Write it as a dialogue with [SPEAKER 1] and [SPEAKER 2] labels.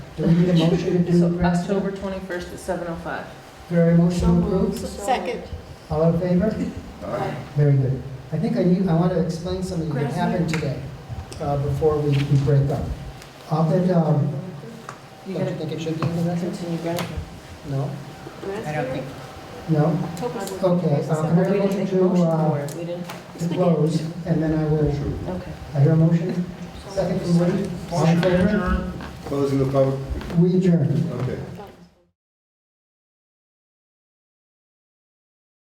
[SPEAKER 1] Do we need a motion to do?
[SPEAKER 2] So
[SPEAKER 1] the rest of it?
[SPEAKER 2] October 21st at 7:05.
[SPEAKER 1] Very motion approved.
[SPEAKER 3] Second.
[SPEAKER 1] All in favor? Very good. I think I need, I want to explain something that happened today, uh, before we we break up. Up at, um,
[SPEAKER 2] You
[SPEAKER 1] don't you
[SPEAKER 2] gotta
[SPEAKER 1] think it should be in the record?
[SPEAKER 2] continue, Brad.
[SPEAKER 1] No?
[SPEAKER 3] I don't think.
[SPEAKER 1] No? Okay, uh, can I have
[SPEAKER 2] We
[SPEAKER 1] a
[SPEAKER 2] didn't
[SPEAKER 1] motion
[SPEAKER 2] make a
[SPEAKER 1] to,
[SPEAKER 2] motion for
[SPEAKER 1] uh,
[SPEAKER 2] it, we didn't,
[SPEAKER 1] to close, and then I will,
[SPEAKER 2] okay.
[SPEAKER 1] I hear a motion? Second from Woody? All in favor?
[SPEAKER 4] Closing the public,
[SPEAKER 1] We adjourn.
[SPEAKER 4] okay.